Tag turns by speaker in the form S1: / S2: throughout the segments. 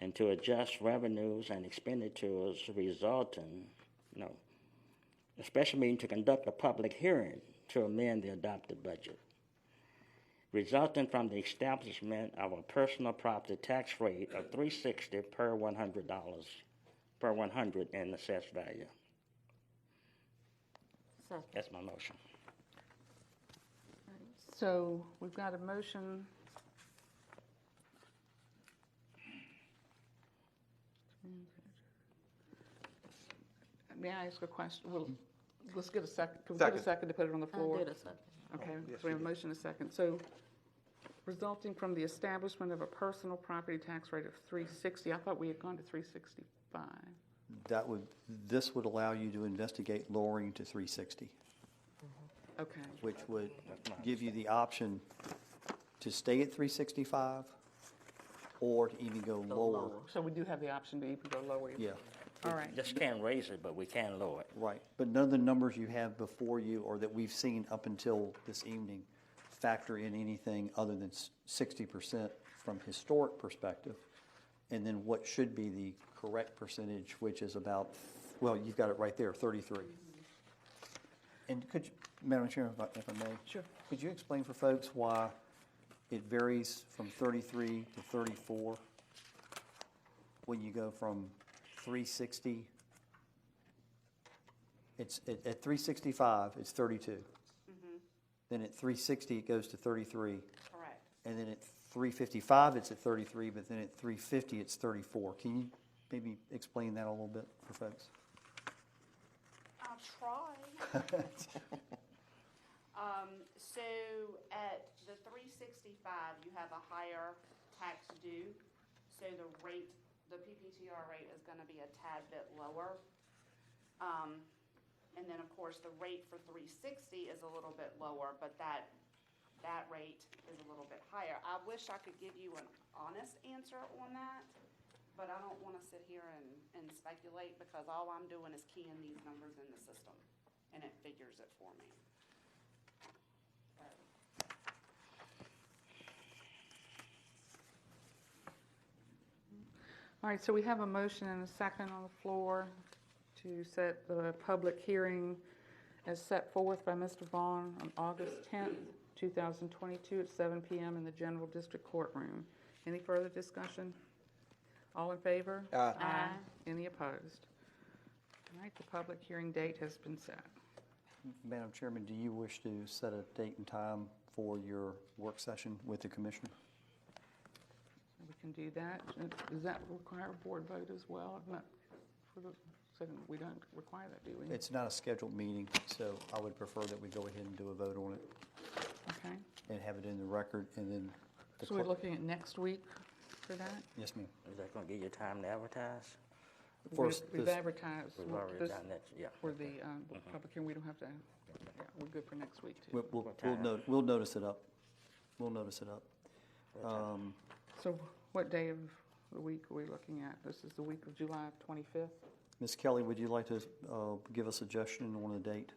S1: and to adjust revenues and expenditures resulting, no. A special meeting to conduct a public hearing to amend the adopted budget resulting from the establishment of a personal property tax rate of three sixty per one hundred dollars, per one hundred in assessed value.
S2: Second.
S1: That's my motion.
S2: So we've got a motion. May I ask a question? Well, let's get a second, can we get a
S3: Second. Oh,
S2: second to put it on the
S4: I
S2: floor?
S4: did a second.
S2: Okay,
S3: yes,
S2: so we
S3: you
S2: have a motion and a second. So resulting from the establishment of a personal property tax rate of three sixty, I thought we had gone to three sixty-five.
S5: That would, this would allow you to investigate lowering to 360,
S2: Okay,
S5: which would give you the option to stay at 365 or to even go lower.
S2: so we do have the option to even go lower.
S5: Yeah,
S2: All right,
S1: Just can't raise it, but we can lower it.
S5: right. But none of the numbers you have before you or that we've seen up until this evening factor in anything other than s- 60% from historic perspective. And then what should be the correct percentage, which is about, well, you've got it right there, 33. And could, you- Madam Chair, if I- if I may? Sure. Could you explain for folks why it varies from 33 to 34? When you go from 360, it's, at at 365, it's 32. Then at 360, it goes to 33.
S2: Correct.
S5: And then at 355, it's at 33, but then at 350, it's 34. Can you maybe explain that a little bit for folks?
S6: I'll try. Um, so at the three sixty-five, you have a higher tax due, so the rate, the PPTR rate is gonna be a tad bit lower. Um, and then, of course, the rate for three sixty is a little bit lower, but that, that rate is a little bit higher. I wish I could give you an honest answer on that, but I don't wanna sit here and, and speculate, because all I'm doing is keying these numbers in the system, and it figures it for me.
S2: All right, so we have a motion and a second on the floor to set the public hearing as set forth by Mr. Vaughn on August 10th, 2022 at 7 PM in the General District Courtroom. Any further discussion? All in favor?
S3: Aye.
S2: Any opposed? All right, the public hearing date has been set.
S5: Madam Chairman, do you wish to set a date and time for your work session with the commissioner?
S2: We can do that. Does that require a board vote as well? Not for the, so we don't require that, do we?
S5: It's not a scheduled meeting, so I would prefer that we go ahead and do a vote on it
S2: Okay.
S5: and have it in the record and then. the
S2: So we're
S5: clerk-
S2: looking at next week for that?
S5: Yes, ma'am.
S1: Is that gonna give you time to advertise?
S5: First,
S2: We've- We've
S5: this-
S2: advertised
S1: We've
S2: well,
S1: already
S2: this-
S1: done that, Mm-hmm. yeah.
S2: for the um, public hearing, we don't have to, yeah, we're good for next week, too.
S5: We'll, we'll,
S1: What
S5: we'll
S1: time?
S5: note, we'll notice it up. We'll notice it up. Um,
S2: So what day of the week are we looking at? This is the week of July 25th?
S5: Ms. Kelly, would you like to, uh, give a suggestion on a date?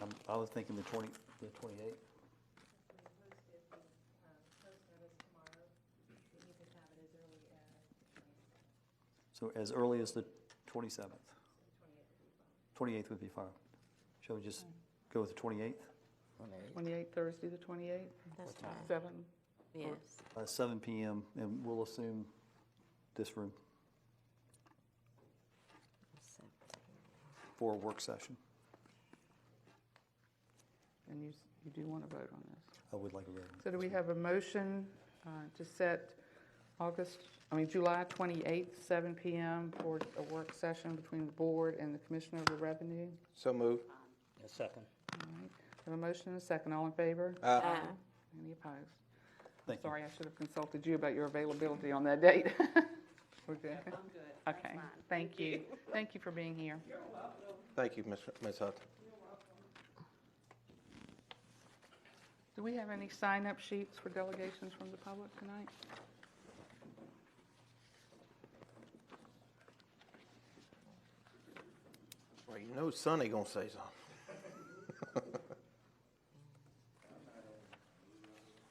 S5: Um, I was thinking the twenty, the twenty-eighth. So as early as the twenty-seventh? Twenty-eighth would be fine. Shall we just go with the twenty-eighth?
S2: 28th, Thursday, the 28th?
S4: That's fine.
S2: 7?
S4: Yes.
S5: Uh, seven PM, and we'll assume this room for a work session.
S2: And you, s- you do want to vote on this.
S5: I would like a room.
S2: So do we have a motion uh, to set August, I mean, July 28th, 7 PM for a work session between the board and the Commissioner of the Revenue?
S3: So move.
S1: A second.
S2: All right. Have a motion and a second. All in favor?
S4: Aye.
S2: Any opposed?
S5: Thank you.
S2: Sorry, I should have consulted you about your availability on that date. We're good? I'm good. Okay, thank you. Thank you for being here.
S3: Thank you, Ms. Ms. Hudson.
S2: Do we have any sign-up sheets for delegations from the public tonight?
S3: Well, you know Sonny gonna say something.